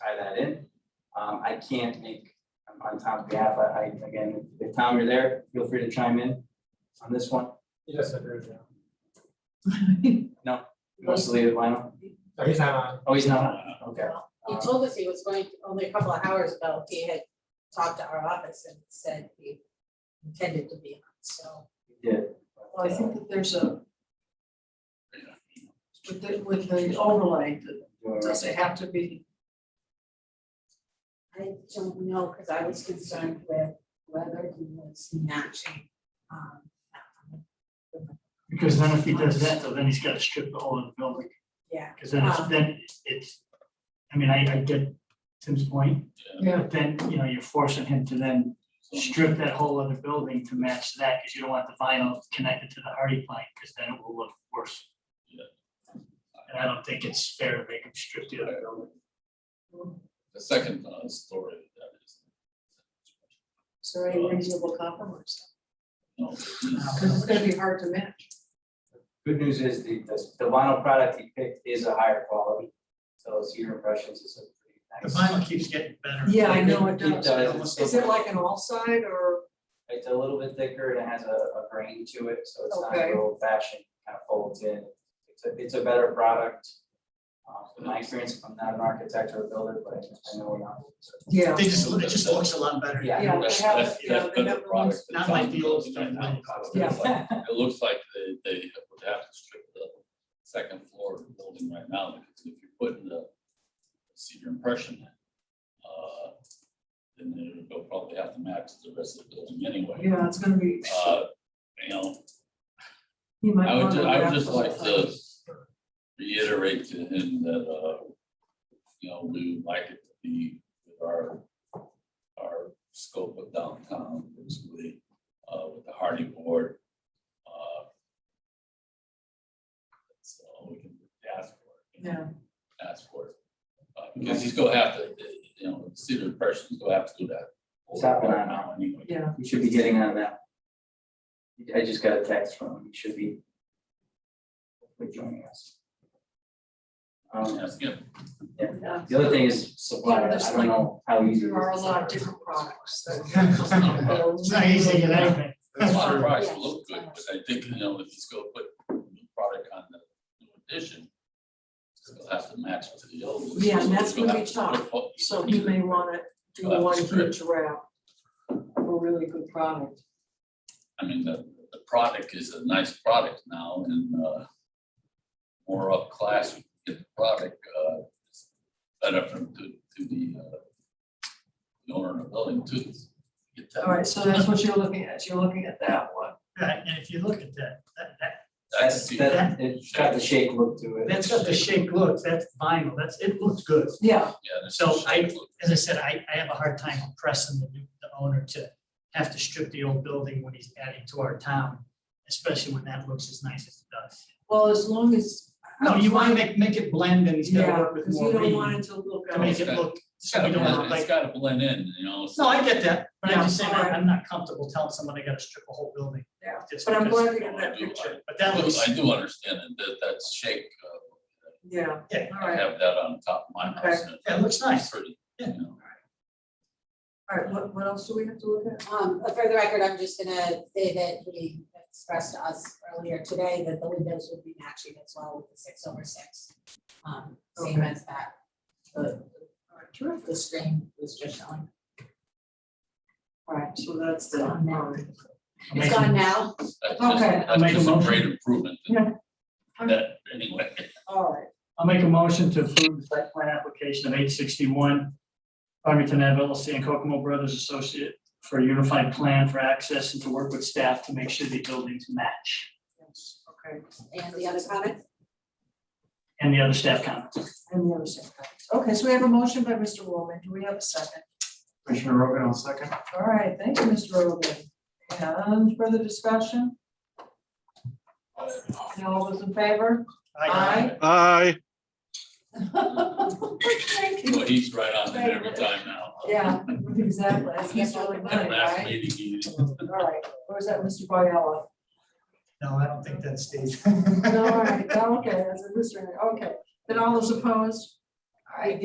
tie that in. Um, I can't make, on- on Tom's behalf, I, I, again, if Tom, you're there, feel free to chime in on this one. Yes, I agree with you. He He Wants to leave it, Lionel? No, he's not on. Oh, he's not on, okay. Um, told us he was going, only a couple of hours ago, he had talked to our office and said he intended to be on, so. He did. Oh, Well, I think that there's a. With the, with the overlay, Doing does it have to be I don't know, because I was concerned with whether he was matching. um, Because then if he does that, though, then he's gotta strip the whole of the building, Yeah, because then it's, Um. then it's, I mean, I, I get Tim's point. Yeah. But then, you know, you're forcing him to then strip that whole other building to match that, because you don't want the vinyl connected to the hardy plank, because then it will look worse. Yeah. And I don't think it's fair to make him strip the other building. The second uh, story that is. is there any reasonable compromise? No, Because it's gonna be hard to match. Good news is the, the- the vinyl product he picked is a higher quality, so it's your impressions is a The pretty nice. vinyl keeps getting better. Yeah, I know It it does. does, it's Is it like an all side or, It's a little bit thicker and it has a, a grain to it, so it's not Okay. your old fashioned, kind of folds in. It's a, it's a better product. Uh, from my experience, I'm not an architect or a builder, but I know enough. so. yeah, They just, it just looks a lot better. Yeah. Yeah, That's, they have- that's, you know, that's they been the have the product. ones- that not like comes the old with stuff, it. like- It looks like- It looks like they, they would have to strip the second floor of the building right now, because if you put in the senior impression, uh, then they'll probably have to match the rest of the building anyway. yeah, it's gonna be, Uh, you know, he might. I would, wanna ju- I would wrap just the like whole to thing. reiterate to him that, uh, you know, we would like it to be with our, our scope of downtown, basically, uh, with the Hardy Board. uh, That's all we can ask for. you know, Yeah, Ask for it. Uh, Because he's gonna have to, you know, see the person, he's gonna have to do that. It's happening. Now anyway. yeah, You should be getting on that. I just got a text from him, he should be. hopefully joining us. Um, Ask him. yeah. the other thing is supply, Yeah, I there's don't know how easy. it There are a is. lot of different products It's not a problem. that. It's not easy to get anything. That's why Sure. price Yes. will look good, but I think, you know, if he's gonna put new product on the new edition, it's gonna have to match with the old. one. Yeah, and that's He's gonna gonna have be to put tough. what- So he may wanna do Well, one that's true. huge wrap. A really good product. I mean, the, the product is a nice product now and, uh, more up class, we can get the product, uh, it's better from, to, to the, uh, the owner of the building too. Get that. All right, so that's what you're looking at. You're looking at that one. Right, and if you look at that, that, that, That's That's, the- that, it's got the shake look to it. that's what the shape looks, that's vinyl, that's, it looks good. Yeah, yeah, that's So the I- shape look. as I said, I, I have a hard time pressing the, new- the owner to have to strip the old building when he's adding to our town, especially when that looks as nice as it does. well, as long as. No, you wanna make, make it blend and he's gotta Yeah, work with because you more don't reading want it to look. to out. make it look, It's so gotta we don't blend, have it's like. gotta blend in, you know. so- No, I get that, but I'm just saying, Yeah, I- alright. I'm not comfortable telling someone they gotta strip a whole building. Yeah, just But I'm because- glad we got No, I that do, I- picture. But I that do- looks, I do understand it, that, that's shake, uh, Yeah, yeah, all I right, have that on top of my house. and that looks nice. pretty, you know. all right, what, what else do we have to look at? Um, but for the record, I'm just gonna say that he expressed to us earlier today that the windows would be matching as well with the six over six. Um, same Okay. as that. The, the screen was just showing. All right, so that's the, all right. I'm It's making- gone now. That's just- Okay. I'll make That's a just a motion. great improvement. than Yeah. That, anyway. All right, I'll make a motion to approve the site plan application of eight sixty-one Farmington Ave LLC and Kokomo Brothers Associate for a unified plan for access and to work with staff to make sure the buildings match. yes, okay, And the other comment? And the other staff comments. and the other side. Okay, so we have a motion by Mr. Roman, do we have a second? Commissioner Rogan, on second. All right, thank you, Mr. Rogan. And further discussion? And all those in favor? Aye. Aye, Thank you. Well, he's right on it every time now. Yeah, exactly, that's Mr. Rogan, That last right? meeting, he, All right, or is that Mr. Biella? No, I don't think that stays. All right, okay, that's a mystery, okay. Then all those opposed? I